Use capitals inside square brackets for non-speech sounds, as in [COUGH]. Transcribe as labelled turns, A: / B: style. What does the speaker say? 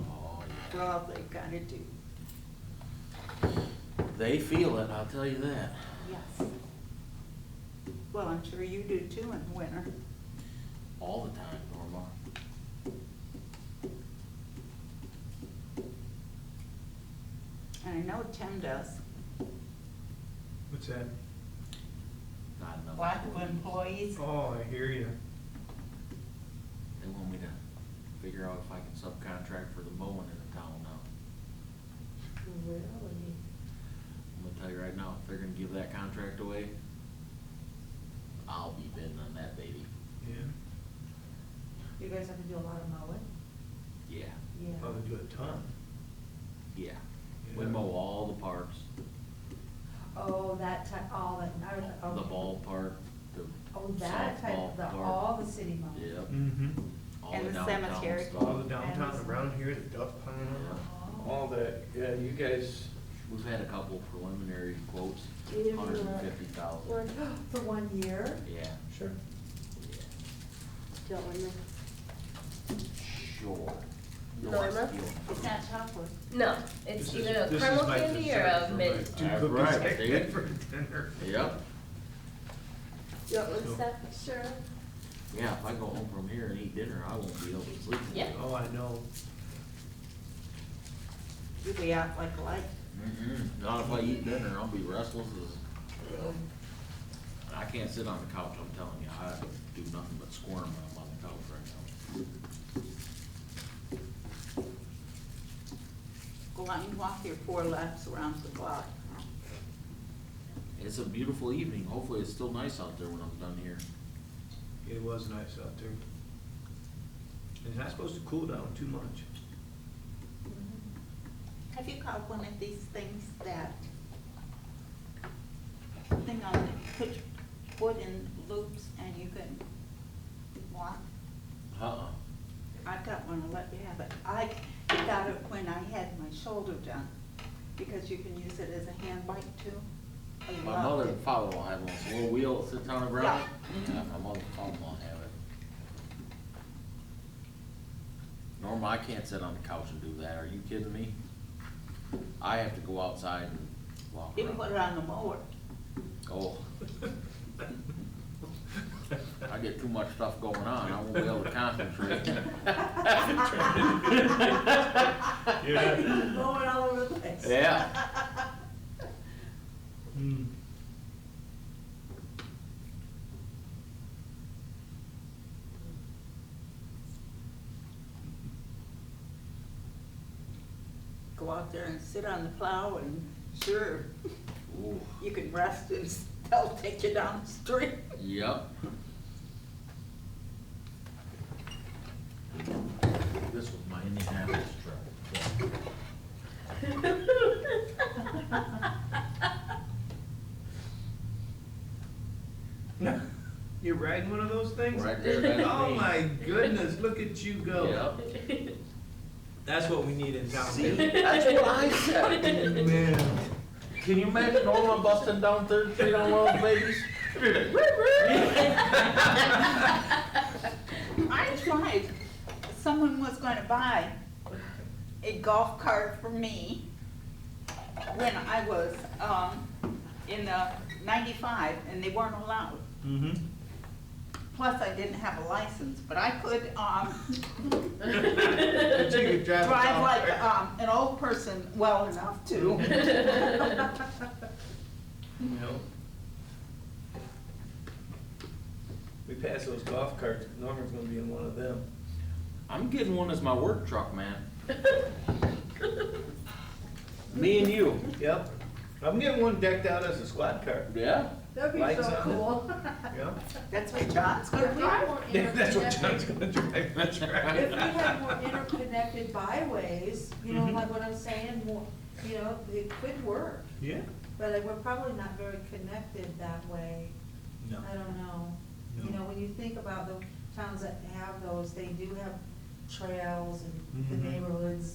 A: Oh,
B: Well, they kinda do,
A: They feel it, I'll tell you that.
B: yes. Well, I'm sure you do too in winter.
A: All the time, Norma.
B: And I know Tim does.
C: What's that?
A: Not enough.
B: Lack of employees.
C: Oh, I hear you.
A: They want me to figure out if I can subcontract for the mowing in the town now.
D: Really?
A: I'm gonna tell you right now, if they're gonna give that contract away, I'll be bidding on that baby.
C: Yeah,
D: You guys have to do a lot of mowing?
A: Yeah,
D: Yeah.
C: probably do a ton.
A: yeah. We
C: Yeah.
A: mow all the parks,
D: Oh, that type, all that, I was,
A: the
D: oh.
A: ballpark, the
D: Oh, that type,
A: softball
D: the,
A: park.
D: all the city mowing.
A: Yep,
C: Mm-hmm.
A: all
B: And
A: the
B: the
A: downtown
B: cemetery.
A: stuff.
C: All the downtown around here, the duck pond,
D: Oh.
E: All that, yeah, you guys,
A: We've had a couple preliminary quotes,
D: Did you, uh,
A: hundred and fifty
D: Or- [GASPS]
A: thousand,
D: For one year?
A: yeah,
E: sure.
A: yeah,
F: Don't worry.
A: sure. No, I'm
F: Norma?
A: feeling-
B: It's not chocolate.
F: No, it's
C: This is-
F: either a
C: this is
F: caramel
C: my
F: candy or
C: dessert
F: a
C: for my
F: mint.
C: Two
A: That's
C: cookies
A: right,
C: I [LAUGHS]
A: see?
C: had for dinner.
A: Yep,
F: You want one
C: No.
F: step, sure?
A: yeah, if I go home from here and eat dinner, I won't be able to sleep.
F: Yeah.
C: Oh, I know.
B: You'll be out like a light.
A: Mm-mm, not if I eat dinner, I'll be restless as. I can't sit on the couch, I'm telling you, I do nothing but squirm when I'm on the couch right
B: Go out and walk your four laps around the block.
A: now. It's a beautiful evening, hopefully it's still nice out there when I'm done here.
C: It was nice out there. It's not supposed to cool down too much.
B: Have you got one of these things that thing on, it, put wood in loops and you can walk?
A: Uh-uh.
B: I got one, I'll let you have it. I got it when I had my shoulder done, because you can use it as a hand bike too. I
A: My
B: loved
A: mother
B: it.
A: and father-in-law have one, it's a little wheel, that sits on the ground. Yeah, my mother and father-in-law have it. Norma, I can't sit on the couch and do that, are you kidding me? I have to go outside and walk
B: You can put it
A: around.
B: on the mower.
A: Oh. I get too much stuff going on, I won't be able to
C: [LAUGHS]
A: concentrate.
B: [LAUGHS]
C: Yeah.
B: Mow it all over the place.
A: Yeah,
C: Hmm.
B: [LAUGHS] Go out there and sit on the plow and sure,
A: Ooh,
B: you can rest and [LAUGHS] they'll take you down
A: [LAUGHS]
B: the street.
A: yep. This was my Indianapolis truck.
C: You're riding one of those things?
A: Right there, that's me.
C: [LAUGHS] Oh my goodness, look at you go.
A: Yep.
C: That's what we need in town.
A: See, that's what I said.
F: [LAUGHS]
C: Man.
A: Can you imagine Norma busting down Third Street on one of those babies?
B: I tried, someone was gonna buy a golf cart for me when I was, um, in the ninety-five, and they weren't allowed.
C: Mm-hmm.
B: Plus, I didn't have a license, but I could, um,
C: But you could [LAUGHS] drive.
B: drive
C: uh, around.
B: like, um, an old person well enough to.
C: You know? We pass those golf carts, Norman's gonna be in one of them.
A: I'm getting one as my work truck, man.
F: [LAUGHS]
A: Me and you.
C: Yep. I'm getting one decked out as a squad car.
A: Yeah?
D: That'd be
C: Lights on
D: so
C: it. [LAUGHS]
D: cool.
C: Yep.
B: That's what John's gonna drive.
C: [LAUGHS] That's what John's gonna drive, that's
D: If we
C: right.
D: had more interconnected byways, you know,
C: Mhm.
D: like what I'm saying, more, you know, it could work.
C: Yeah?
D: But like, we're probably not very connected that way.
C: No.
D: I don't know. You
C: No.
D: know, when you think about the towns that have those, they do have trails and the
C: Mhm.
D: neighborhoods